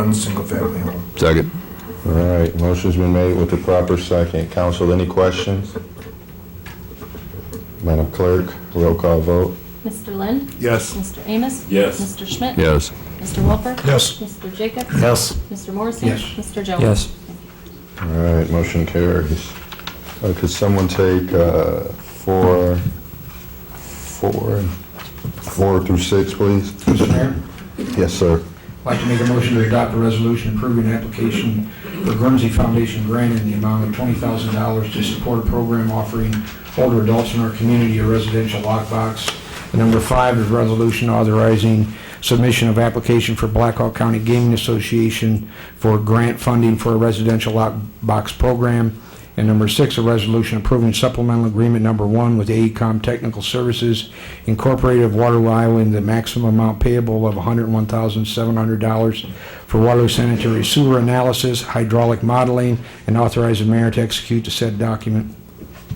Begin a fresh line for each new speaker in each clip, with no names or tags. one single-family home.
Second.
All right, motion's been made with the proper second. Council, any questions? Madam Clerk, roll call vote.
Mr. Lind?
Yes.
Mr. Amos?
Yes.
Mr. Schmidt?
Yes.
Mr. Wilper?
Yes.
Mr. Jacobs?
Yes.
Mr. Morrissey?
Yes.
Mr. Jones?
Yes.
All right, motion carries. Uh, Could someone take uh, four, four, four through six, please?
Mr. Mayor,
Yes, sir.
I'd like to make a motion to adopt a resolution approving an application for Guernsey Foundation grant in the amount of $20,000 to support a program offering older adults in our community a residential lockbox. And Number five is resolution authorizing submission of application for Blackhawk County Gaming Association for grant funding for a residential lockbox program. And number six, a resolution approving supplemental agreement number one with E AECom Technical Services Incorporated of Waterloo, Iowa, in the maximum amount payable of $101,700 for Waterloo sanitary sewer analysis, hydraulic modeling, and authorize the mayor to execute the said document.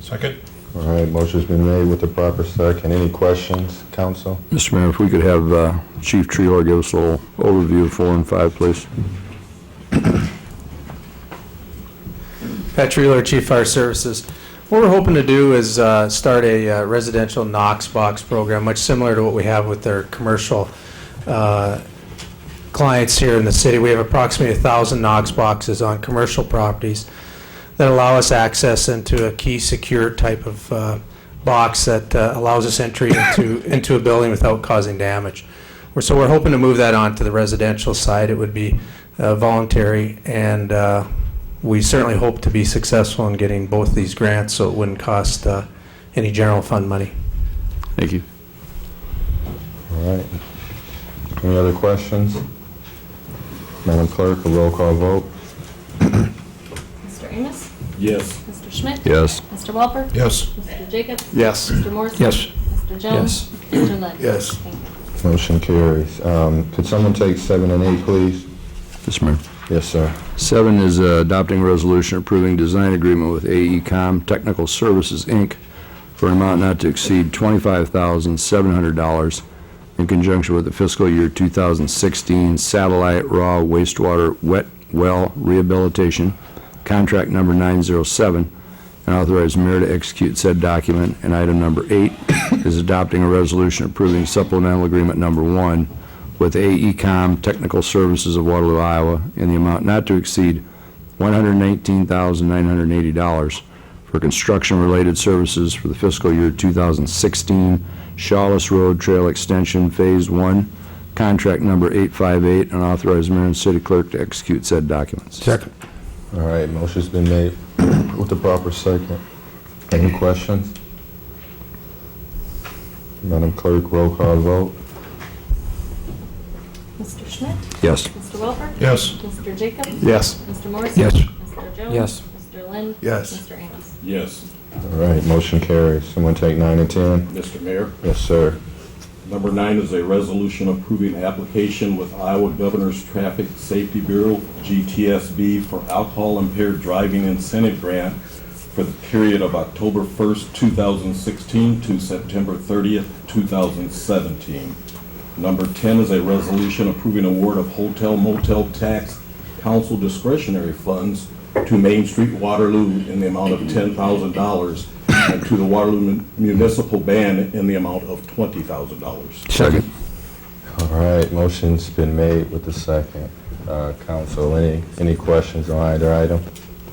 Second?
All right, motion's been made with the proper second. Any questions, council?
Mr. Mayor, if we could have uh, Chief Treehorn give us a little overview of four and five, please.
Pat Treeler, Chief Fire Services. What we're hoping to do is uh, start a uh, residential Knox box program, much similar to what we have with our commercial uh, clients here in the city. We have approximately 1,000 Knox boxes on commercial properties that allow us access into a key secure type of uh, box that uh, allows us entry into, into a building without causing damage. We're- So we're hoping to move that on to the residential side. It would be uh, voluntary, and uh, we certainly hope to be successful in getting both these grants, so it wouldn't cost uh, any general fund money.
Thank you.
All right. Any other questions? Madam Clerk, a roll call vote.
Mr. Amos?
Yes.
Mr. Schmidt?
Yes.
Mr. Welper?
Yes.
Mr. Jacobs?
Yes.
Mr. Morrissey?
Yes.
Mr. Jones? Yes. Mr. Lind?
Yes.
Thank you.
Motion carries. Um, Could someone take seven and eight, please?
Mr. Mayor.
Yes, sir.
Seven is uh, adopting a resolution approving design agreement with AECom Technical Services, Inc. for an amount not to exceed $25,700 in conjunction with the fiscal year 2016 satellite raw wastewater wet well rehabilitation, contract number 907, and authorize mayor to execute said document. And item number eight is adopting a resolution approving supplemental agreement number one with AECom Technical Services of Waterloo, Iowa, in the amount not to exceed $119,980 for construction-related services for the fiscal year 2016 Shawless Road Trail Extension Phase 1, contract number 858, and authorize mayor and city clerk to execute said documents.
Second.
All right, motion's been made with the proper second. Any questions? Madam Clerk, roll call vote.
Mr. Schmidt?
Yes.
Mr. Welper?
Yes.
Mr. Jacobs?
Yes.
Mr. Morrissey?
Yes.
Mr. Jones?
Yes.
Mr. Lind?
Yes.
Mr. Amos?
Yes.
All right, motion carries. Someone take nine and 10?
Mr. Mayor,
Yes, sir.
number nine is a resolution approving application with Iowa Governor's Traffic Safety Bureau, GTSB, for alcohol impaired driving incentive grant for the period of October 1st, 2016 to September 30th, 2017. Number 10 is a resolution approving award of hotel motel tax council discretionary funds to Main Street Waterloo in the amount of $10,000 and to the Waterloo Mun- Municipal Band in the amount of $20,000.
Second.
All right, motion's been made with the second. Uh, Council, any, any questions on either item?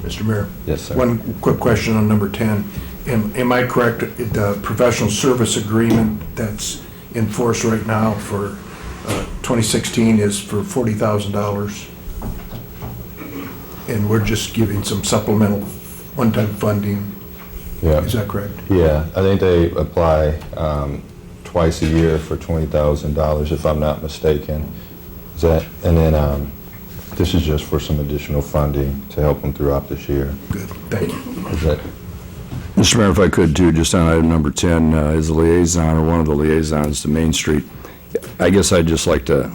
Mr. Mayor?
Yes, sir.
One quick question on number 10. Am am I correct, the professional service agreement that's in force right now for uh, 2016 is for $40,000? And we're just giving some supplemental one-time funding,
Yeah.
is that correct?
Yeah, I think they apply um, twice a year for $20,000, if I'm not mistaken. Is that, and then um, this is just for some additional funding to help them throughout this year.
Good, thank you.
Is that,
Mr. Mayor, if I could too, just on item number 10, uh, is a liaison or one of the liaisons to Main Street. I guess I'd just like to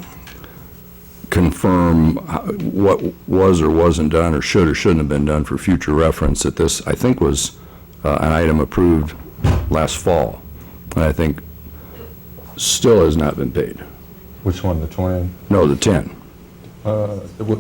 confirm how- what was or wasn't done, or should or shouldn't have been done for future reference, that this, I think, was uh, an item approved last fall, and I think still has not been paid.
which one, the 20?
No, the 10.
uh,